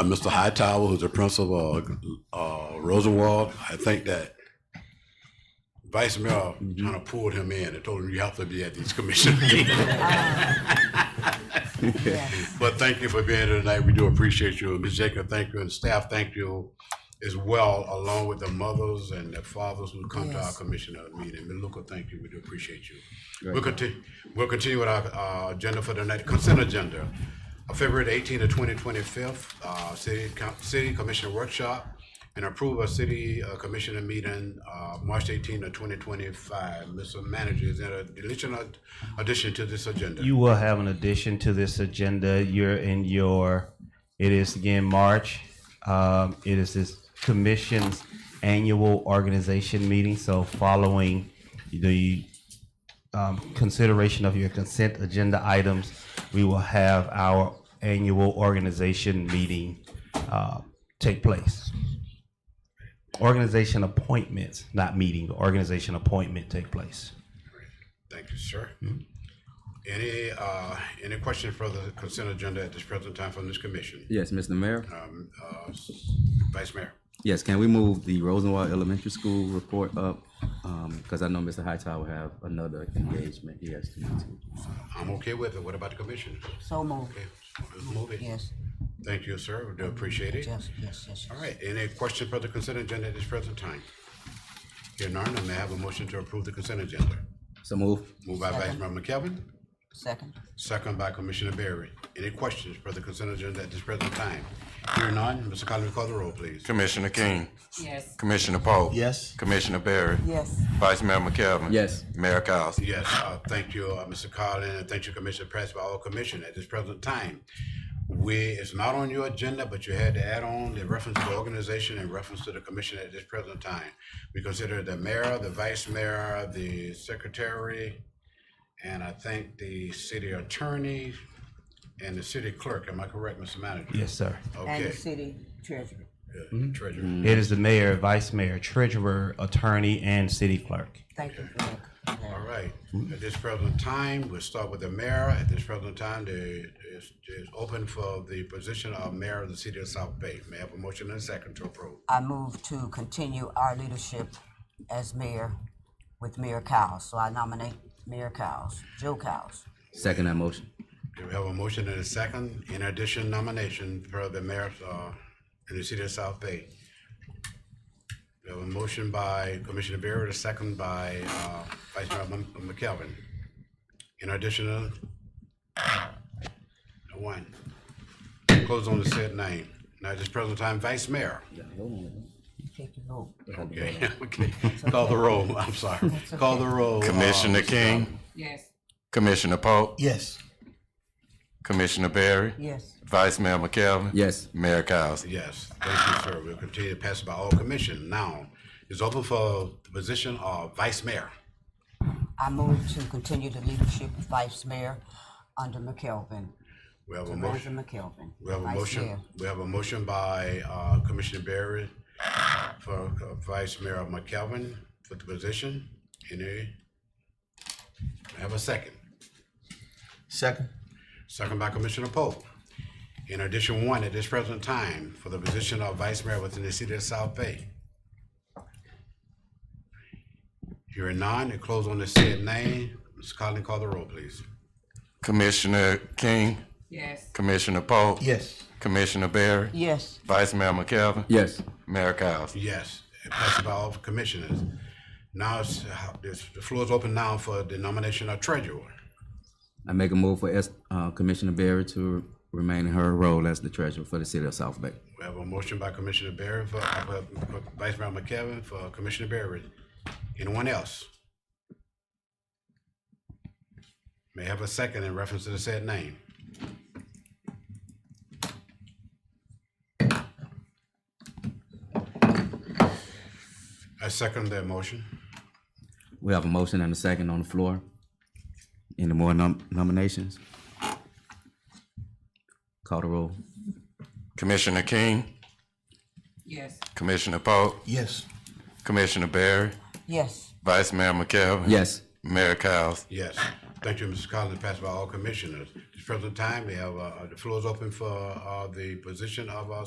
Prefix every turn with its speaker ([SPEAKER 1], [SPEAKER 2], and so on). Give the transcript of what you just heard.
[SPEAKER 1] uh, Mr. Hightower, who's the principal of uh, Rosenwald, I think that Vice Mayor kind of pulled him in and told him you have to be at these commission meetings.
[SPEAKER 2] Yes.
[SPEAKER 1] But thank you for being here tonight. We do appreciate you. And Ms. Jacob, thank you, and staff, thank you as well, along with the mothers and the fathers who come to our
[SPEAKER 2] Yes.
[SPEAKER 1] commissioner meeting. Ms. Luca, thank you. We do appreciate you. We'll continue, we'll continue with our, uh, agenda for tonight. Consent agenda. Uh, February the eighteenth to twenty twenty-fifth, uh, city, com- city commissioner workshop and approve a city uh, commissioner meeting, uh, March eighteenth to twenty twenty-five. Mr. Manager, is there a deletion or addition to this agenda?
[SPEAKER 3] You will have an addition to this agenda. You're in your, it is again March. Um, it is this commission's annual organization meeting. So following the um, consideration of your consent agenda items, we will have our annual organization meeting uh, take place. Organization appointments, not meeting, organization appointment take place.
[SPEAKER 1] Thank you, sir. Any, uh, any question for the consent agenda at this present time from this commission?
[SPEAKER 4] Yes, Mr. Mayor.
[SPEAKER 1] Um, uh, Vice Mayor?
[SPEAKER 4] Yes, can we move the Rosenwald Elementary School report up? Because I know Mr. Hightower have another engagement he has to attend to.
[SPEAKER 1] I'm okay with it. What about the commissioners?
[SPEAKER 2] So moved.
[SPEAKER 1] Okay, let's move it.
[SPEAKER 2] Yes,
[SPEAKER 1] Thank you, sir. We do appreciate it.
[SPEAKER 2] yes, yes, yes.
[SPEAKER 1] All right, any question for the consent agenda at this present time? Here none, I may I have a motion to approve the consent agenda.
[SPEAKER 4] So move.
[SPEAKER 1] Moved by Vice Mayor McKelvin,
[SPEAKER 2] Second,
[SPEAKER 1] second by Commissioner Berry. Any questions for the consent agenda at this present time? Here none, Mr. Collins, call the roll, please.
[SPEAKER 5] Commissioner King.
[SPEAKER 6] Yes.
[SPEAKER 5] Commissioner Poe.
[SPEAKER 3] Yes.
[SPEAKER 5] Commissioner Barry.
[SPEAKER 2] yes,
[SPEAKER 5] Vice Mayor McKelvin.
[SPEAKER 4] Yes.
[SPEAKER 5] Mayor Cowes.
[SPEAKER 1] Yes, uh, thank you, uh, Mr. Collins, and thank you, Commissioner Press, by all commission at this present time. We, it's not on your agenda, but you had to add on the reference to the organization and reference to the commission at this present time. We consider the mayor, the vice mayor, the secretary, and I think the city attorney and the city clerk. Am I correct, Mr. Manager?
[SPEAKER 3] Yes, sir.
[SPEAKER 2] and
[SPEAKER 1] Okay,
[SPEAKER 2] the city treasurer.
[SPEAKER 1] Good. treasurer.
[SPEAKER 3] It is the mayor, vice mayor, treasurer, attorney, and city clerk.
[SPEAKER 2] Thank you for that.
[SPEAKER 1] All right, at this present time, we'll start with the mayor. At this present time, the, is, is open for the position of mayor of the city of South Bay. May I have a motion and a second to approve?
[SPEAKER 2] I move to continue our leadership as mayor with Mayor Cowles. So I nominate Mayor Cowles, Joe Cowles.
[SPEAKER 4] Second that motion.
[SPEAKER 1] Do we have a motion and a second? In addition, nomination for the mayor, uh, in the city of South Bay. We have a motion by Commissioner Barrett, a second by, uh, Vice Mayor Mc- McKelvin. In addition, uh, one. Close on the said name. Now, at this present time, Vice Mayor.
[SPEAKER 2] Take your vote.
[SPEAKER 1] Okay, okay. Call the roll. I'm sorry. Call the roll. uh,
[SPEAKER 5] Commissioner King.
[SPEAKER 6] Yes.
[SPEAKER 5] Commissioner Poe.
[SPEAKER 3] Yes.
[SPEAKER 5] Commissioner Barry.
[SPEAKER 2] Yes,
[SPEAKER 5] Vice Mayor McKelvin.
[SPEAKER 4] Yes.
[SPEAKER 5] Mayor Cowes.
[SPEAKER 1] Yes, thank you, sir. We'll continue to pass by all commission. Now, it's open for the position of Vice Mayor.
[SPEAKER 2] I move to continue the leadership of vice mayor under McKelvin.
[SPEAKER 1] We have a
[SPEAKER 2] Rosa
[SPEAKER 1] motion,
[SPEAKER 2] McKelvin.
[SPEAKER 1] we have a
[SPEAKER 2] vice
[SPEAKER 1] motion,
[SPEAKER 2] mayor.
[SPEAKER 1] we have a motion by uh, Commissioner Barry for uh, Vice Mayor McKelvin for the position. Any? I have a second.
[SPEAKER 7] Second.
[SPEAKER 1] Second by Commissioner Pope. In addition, one at this present time for the position of Vice Mayor within the city of South Bay. Hearing none, it close on the said name. Ms. Collins, call the roll, please.
[SPEAKER 5] Commissioner King.
[SPEAKER 6] Yes.
[SPEAKER 5] Commissioner Poe.
[SPEAKER 7] Yes.
[SPEAKER 5] Commissioner Barry.
[SPEAKER 2] Yes,
[SPEAKER 5] Vice Mayor McKelvin.
[SPEAKER 4] Yes.
[SPEAKER 5] Mayor Cowes.
[SPEAKER 1] Yes, it passes by all commissioners. Now, it's- this- the floor is open now for the nomination of treasurer.
[SPEAKER 4] I make a move for S- uh, Commissioner Barry to remain in her role as the treasurer for the city of South Bay.
[SPEAKER 1] We have a motion by Commissioner Barry for, uh, for Vice Mayor McKelvin for Commissioner Barry. Anyone else? May I have a second in reference to the said name. I second that motion.
[SPEAKER 4] We have a motion and a second on the floor. Any more nom- nominations? Call the roll.
[SPEAKER 5] Commissioner King.
[SPEAKER 6] Yes.
[SPEAKER 5] Commissioner Poe.
[SPEAKER 7] Yes.
[SPEAKER 5] Commissioner Barry.
[SPEAKER 2] yes,
[SPEAKER 5] Vice Mayor McKelvin.
[SPEAKER 4] Yes.
[SPEAKER 5] Mayor Cowes.
[SPEAKER 1] Yes. Thank you, Mrs. Collins, passed by all commissioners. At this present time, we have, uh, the floor is open for, uh, the position of, uh,